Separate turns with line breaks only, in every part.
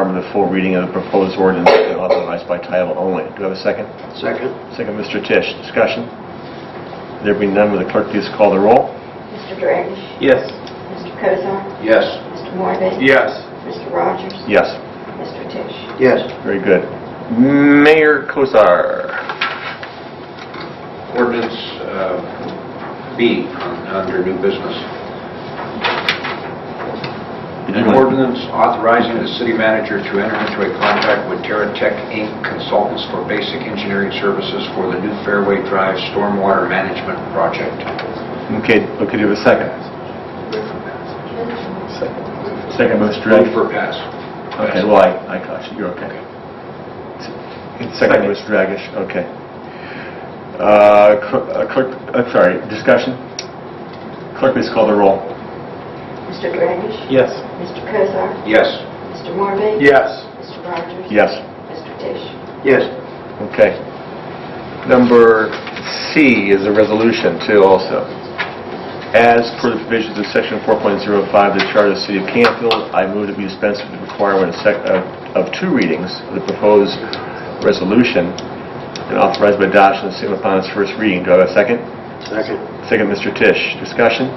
the full reading of the proposed ordinance and authorized by title only. Do I have a second?
Second?
Second, Mr. Tisch. Discussion? There being none, will the clerk please call the roll?
Mr. Dragish?
Yes.
Mr. Cosar?
Yes.
Mr. Morbe?
Yes.
Mr. Rogers?
Yes.
Mr. Tisch?
Yes.
Very good. Mayor Kosar.
Ordinance uh, B, on- under new business. An ordinance authorizing the city manager to enter into a contract with Terra Tech Inc. Consultants for basic engineering services for the new Fairway Drive Stormwater Management Project.
Okay, okay, do you have a second? Second, Mr.
Move
Dragish.
for pass.
Okay, well, I, I caught you, you're okay. Second, Mr. Dragish, okay. Uh, cl- uh, Clerk, uh, sorry, discussion? Clerk, please call the roll.
Mr. Dragish?
Yes.
Mr. Cosar?
Yes.
Mr. Morbe?
Yes.
Mr. Rogers?
Yes.
Mr. Tisch?
Yes.
Okay. Number C is a resolution too also. As per the provisions of section 4.05 of the Charter of the City of Campfield, I move that we dispense with the requirement of sec- of of two readings of the proposed resolution and authorize by adoption and signal upon its first reading. Do I have a second?
Second?
Second, Mr. Tisch. Discussion?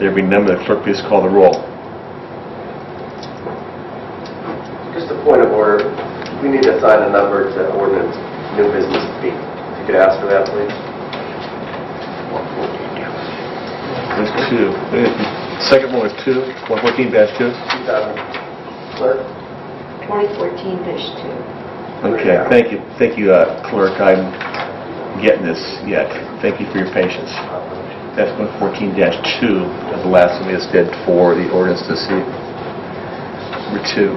There being none, will the clerk please call the roll?
Just a point of order, we need to assign a number to ordinance new business B. If you could ask for that, please.
There's two. Second one was two, 114-2?
2000. Clerk?
2014-2.
Okay, thank you, thank you, uh, clerk, I'm getting this yet. Thank you for your patience. That's 114-2, as the last one we just did for the ordinance this evening. Number two.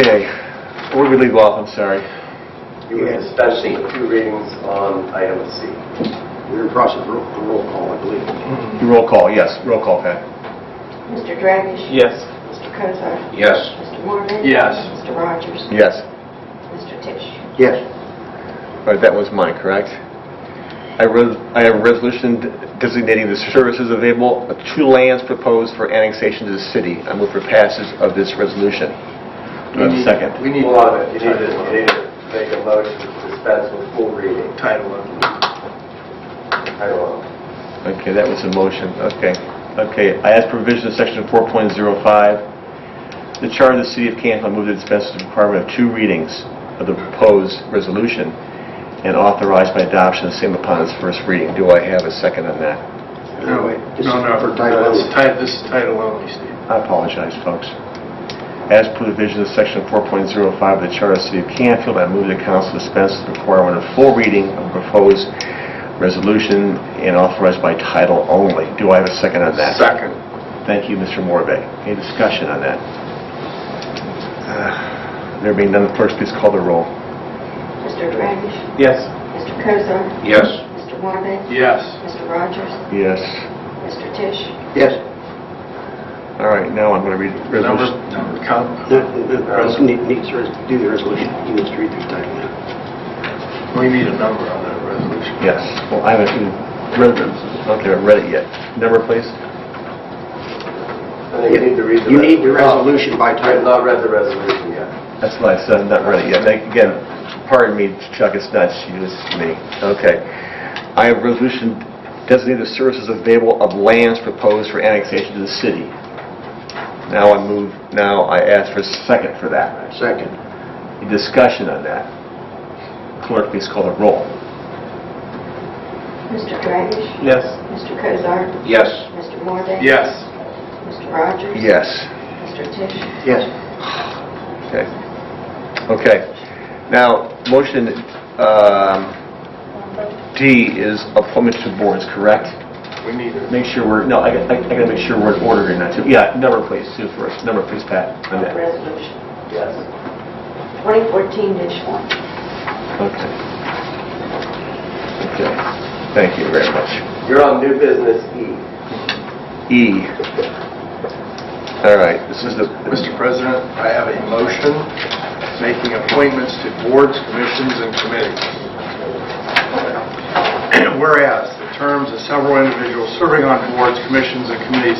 Okay? Okay, where did we leave off, I'm sorry?
You were
Yes.
dispensing with two readings on item C.
We're in process of roll- a roll call, I believe.
Roll call, yes, roll call, Pat.
Mr. Dragish?
Yes.
Mr. Cosar?
Yes.
Mr. Morbe?
Yes.
Mr. Rogers?
Yes.
Mr. Tisch?
Yes.
All right, that was mine, correct? I res- I have a resolution designating the services available to lands proposed for annexation to the city. I move for passage of this resolution. Do I have a second?
We need.
Hold on a minute, you need to, you need to make a motion to dispense with full reading.
Title of.
Title only.
Okay, that was a motion, okay. Okay, I ask provision of section 4.05, the charter of the city of Canfield, I move to dispense with the requirement of two readings of the proposed resolution and authorized by adoption of same upon its first reading. Do I have a second on that?
No, wait. This is
No, no,
for title
no, this is
only.
ti- This is title only, Steve.
I apologize, folks. As per the vision of Section 4.05 of the Charter of the City of Canfield, I move the council dispense with the requirement of full reading of proposed resolution and authorized by title only. Do I have a second on that?
Second.
Thank you, Mr. Morbe. Any discussion on that? Uh, There being none, clerk, please call the roll.
Mr. Dragish?
Yes.
Mr. Cosar?
Yes.
Mr. Morbe?
Yes.
Mr. Rogers?
Yes.
Mr. Tisch?
Yes.
All right, now I'm going to read
Number,
resolution.
number, count.
No,
Um,
no, no, Russ need- Needs to res- do the resolution. You need to read through title now.
we need a number on that resolution.
Yes. Well, I haven't even read it. Okay, I haven't read it yet. Number, please.
I think you need to read the...
You need the
resol-
resolution by
I have
title.
not read the resolution yet.
That's what I said, I'm not ready yet. And Again, pardon me, Chuck, it's not you, it's me. Okay. I have resolution designated services available of lands proposed for annexation to the city. Now I move, now I ask for a second for that.
Second.
Any Discussion on that. Clerk, please call the roll.
Mr. Dragish?
Yes.
Mr. Cosar?
Yes.
Mr. Morbe?
Yes.
Mr. Rogers?
Yes.
Mr. Tisch?
Yes.
Okay. Okay. Now, motion um, D is appointment to boards, correct?
We need a,
Make sure we're, no, I got- I I gotta make sure we're in order here now, too. Yeah, number please, Sue first, number please, Pat. on that.
Resolution
Yes.
2014-1.
Okay. Okay, thank you very much.
You're on new business E.
E. All right, this is the...
Mr. President, I have a motion making appointments to boards, commissions, and committees. Whereas the terms of several individuals serving on boards, commissions, and committees